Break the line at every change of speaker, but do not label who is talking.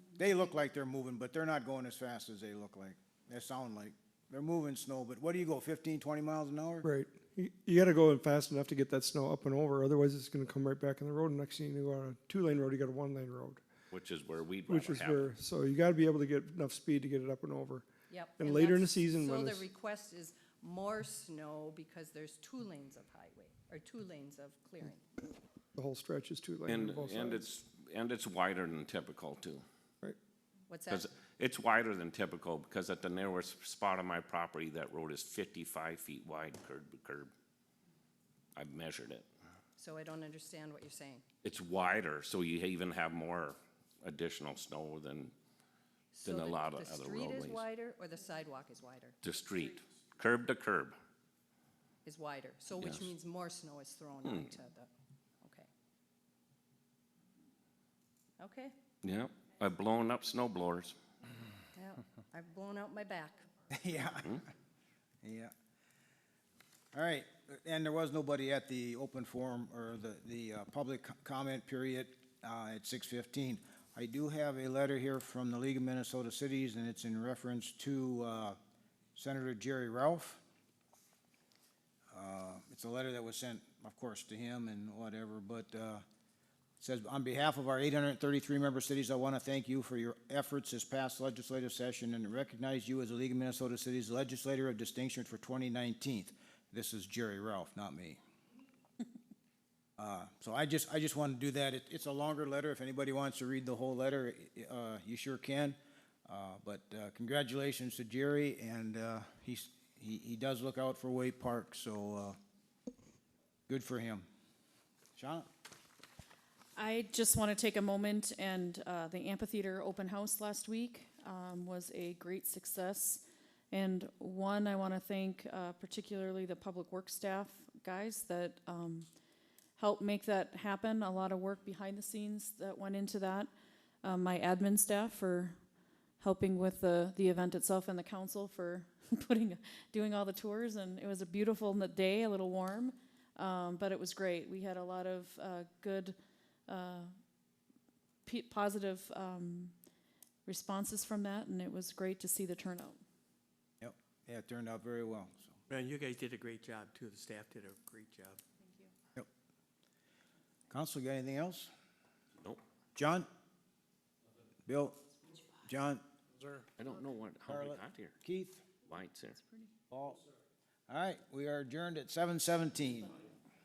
They look like they're moving, but they're not going as fast as they look like, they sound like. They're moving snow, but what do you go, 15, 20 miles an hour?
Right. You, you gotta go in fast enough to get that snow up and over, otherwise it's gonna come right back in the road, and next thing you go on a two-lane road, you got a one-lane road.
which is where we'd
Which
rather
is
have it.
where, so you gotta be able to get enough speed to get it up and over.
Yep.
And later in the
that's-
season when
So
it's-
the request is more snow because there's two lanes of highway, or two lanes of clearing.
The whole stretch is two-lane
And,
on both sides.
and it's, and it's wider than typical too.
Right.
What's that?
Because it's wider than typical because at the narrowest spot on my property, that road is fifty-five feet wide curb to curb. I've measured it.
So I don't understand what you're saying.
It's wider, so you even have more additional snow than
So
Than a
the-
lot of other
The street
roadways.
is wider or the sidewalk is wider?
the street, curb to curb.
Is wider, so which
Yes. Hmm.
means more snow is thrown onto the, okay. Okay,
Yep, I've blown up snow blowers.
yeah, I've blown out my back.
Yeah. Yeah. All right, and there was nobody at the open forum or the, the uh, public co- comment period uh, at six fifteen. I do have a letter here from the League of Minnesota Cities, and it's in reference to uh, Senator Jerry Ralph. Uh, It's a letter that was sent, of course, to him and whatever, but uh, it says, "On behalf of our 833 member cities, I want to thank you for your efforts this past legislative session and recognize you as the League of Minnesota Cities Legislator of Distinction for 2019." This is Jerry Ralph, not me. Uh, So I just, I just want to do that. It- It's a longer letter. If anybody wants to read the whole letter, i- uh, you sure can. Uh, But uh, congratulations to Jerry, and uh, he's, he he does look out for Wake Park, so uh, good for him. Shauna?
I just want to take a moment and uh, the amphitheater open house last week um, was a great success. And one, I want to thank uh, particularly the public works staff guys that um, helped make that happen. A lot of work behind the scenes that went into that. Um, my admin staff for helping with the, the event itself and the council for putting doing all the tours and it was a beautiful n- day a little warm um, but it was great we had a lot of uh, good uh, pe- positive um, responses from that and it was great to see the turnout
Yep, yeah, it turned out very well, so.
Man, you guys did a great job too. The staff did a great job.
Council, got anything else?
Nope,
John? Bill? John?
I don't know what, how we
Carla?
got here.
Keith?
Why it's there.
Paul? All right, we are adjourned at seven seventeen.